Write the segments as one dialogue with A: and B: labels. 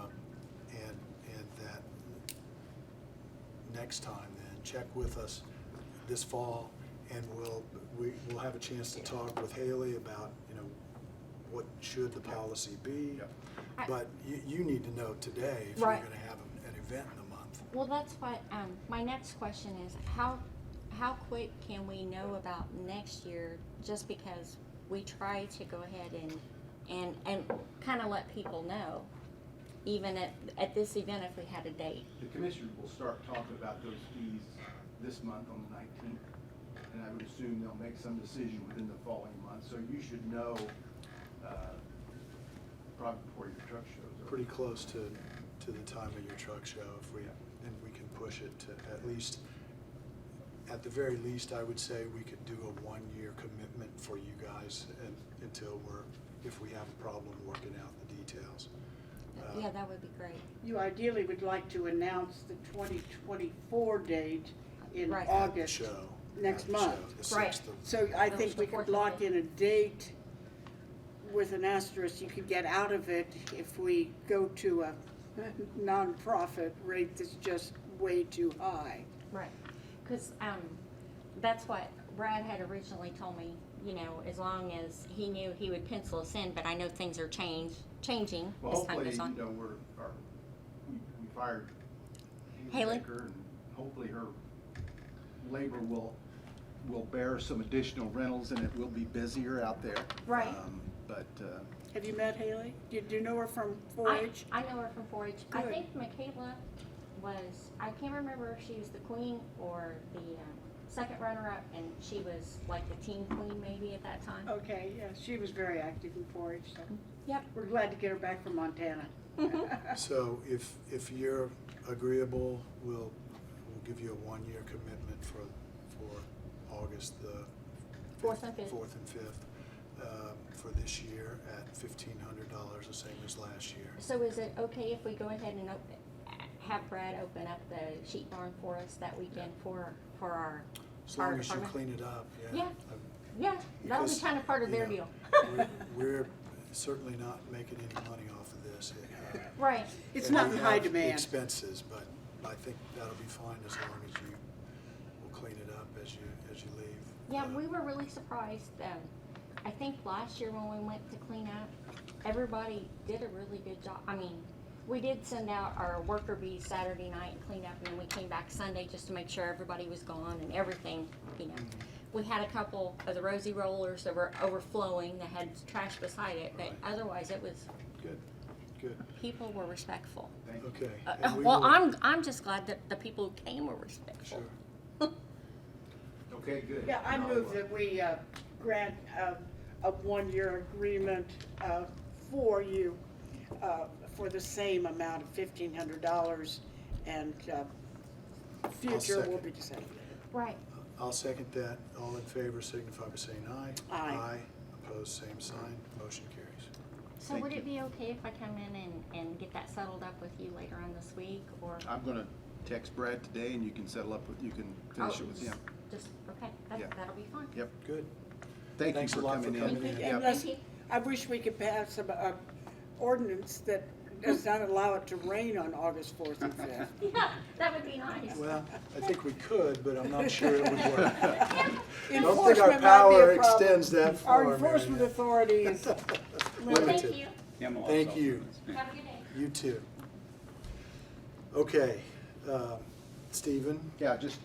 A: Um, next time then, check with us this fall, and we'll, we, we'll have a chance to talk with Haley about, you know, what should the policy be?
B: Yep.
C: I-
A: But you, you need to know today if you're
C: Right.
A: gonna have an an event in a month.
C: Well, that's what, um, my next question is, how, how quick can we know about next year? Just because we try to go ahead and, and, and kinda let people know, even at, at this event if we had a date.
B: The commissioners will start talking about those fees this month on the nineteenth. And I would assume they'll make some decision within the following month, so you should know, uh, probably before your truck shows up.
A: Pretty close to, to the time of your truck show, if we, and we can push it to at least, at the very least, I would say we could do a one-year commitment for you guys and, until we're, if we have a problem working out the details. Uh,
C: Yeah, that would be great.
D: You ideally would like to announce the twenty twenty-four date in
C: Right.
A: at the
D: August.
A: show,
D: next
A: at the show,
D: month.
A: the
C: Right.
A: 6th of-
D: So I
C: That was
D: think
C: the
D: we
C: fourth
D: could
C: of
D: lock
C: it.
D: in a date with an asterisk, you could get out of it if we go to a nonprofit rate that's just way too high.
C: Right. Cause, um, that's what Brad had originally told me, you know, as long as he knew he would pencil us in, but I know things are change, changing
B: Well,
C: as time
B: hopefully,
C: goes
B: you
C: on.
B: know, we're, our, we we fired
C: Haley?
B: Haley Baker, and hopefully her labor will, will bear some additional rentals, and it will be busier out there.
C: Right.
B: Um, But, uh,
D: Have you met Haley? Do you- do you know her from four
C: I,
D: H?
C: I know her from 4-H. I
D: Good.
C: think Michaela was, I can't remember if she was the queen or the um, second runner-up, and she was like the team queen maybe at that time.
D: Okay, yeah, she was very active in four H, so
C: Yep.
D: we're glad to get her back from Montana.
A: So if, if you're agreeable, we'll, we'll give you a one-year commitment for, for August the.
C: Fourth and fifth.
A: Fourth and fifth, uh, for this year at fifteen hundred dollars, the same as last year.
C: So is it okay if we go ahead and open, have Brad open up the sheet barn for us that weekend for, for our,
A: As
C: our
A: long as you
C: department?
A: clean it up, yeah.
C: Yeah.
A: I-
C: Yeah, that'll be
A: because,
C: kind of part of
A: you
C: their
A: know,
C: deal.
A: we're- We're certainly not making any money off of this. It, uh,
C: Right,
D: It's
A: and
D: not
A: we
D: in high
A: have
D: demand.
A: Expenses, but I think that'll be fine as long as you will clean it up as you, as you leave.
C: yeah,
A: Uh,
C: we were really surprised, um, I think last year when we went to clean up, everybody did a really good job, I mean, we did send out our worker bees Saturday night and clean up, and then we came back Sunday just to make sure everybody was gone and everything, you know.
A: Mm-hmm.
C: We had a couple of the rosy rollers that were overflowing that had trash beside it, but
A: Right.
C: otherwise it was,
A: Good, good,
C: people were respectful.
B: thank you.
A: okay.
C: Uh,
A: and we
C: well,
A: will-
C: I'm, I'm just glad that the people who came were respectful.
A: Sure,
B: Okay, good.
D: Yeah, I
B: And I'll,
D: move
B: uh,
D: that we uh, grant uh, a one-year agreement uh, for you uh, for the same amount of fifteen hundred dollars and uh, future will be decided.
C: Right,
A: I'll second that. All in favor signify by saying aye.
D: Aye.
A: Aye, opposed, same sign, motion carries.
C: so
B: Thank
C: would
B: you.
C: it be okay if I come in and, and get that settled up with you later on this week, or?
B: I'm gonna text Brad today, and you can settle up with, you can finish it with him.
C: Oh, Just, okay,
B: Yeah.
C: that, that'll be fine.
B: Yep,
A: Good,
B: thank you
A: Thanks a
B: for
A: lot for
B: coming in.
A: coming in.
B: Yep.
D: Unless,
C: Thank
D: I wish we could pass some uh, ordinance that does not allow it to rain on August fourth and fifth.
C: Yeah, that would be nice.
A: well, I think we could, but I'm not sure it would work. Don't think our
D: Enforcement might be
A: power
D: a problem.
A: extends that far,
D: Our
A: Mary
D: enforcement
A: Ann.
D: authority is
C: Well,
A: limited.
C: thank you.
E: Camelot's
A: Thank
E: also
A: you.
E: nice.
C: Have a good day.
A: You too. Okay, um, Stephen?
B: Yeah, just,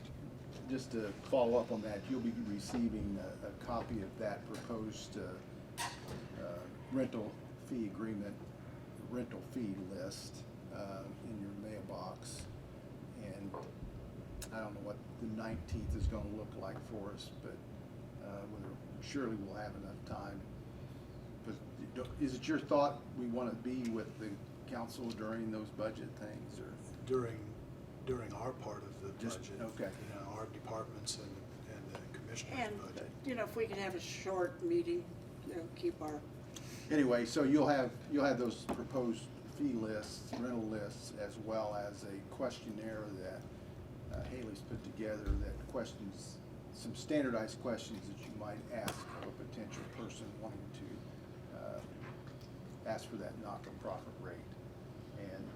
B: just to follow up on that, you'll be receiving a, a copy of that proposed, uh, uh, rental fee agreement, rental fee list, uh, in your mailbox. And I don't know what the nineteenth is gonna look like for us, but, uh, we're- surely we'll have enough time. But don't- is it your thought we wanna be with the council during those budget things, or?
A: during, during our part of the
B: Just-
A: budget.
B: okay.
A: You know, our departments and, and the commissioner's
D: And,
A: budget.
D: you know, if we could have a short meeting, you know, keep our,
B: Anyway, so you'll have, you'll have those proposed fee lists, rental lists, as well as a questionnaire that uh, Haley's put together that questions, some standardized questions that you might ask of a potential person wanting to uh, ask for that not-for-profit rate. And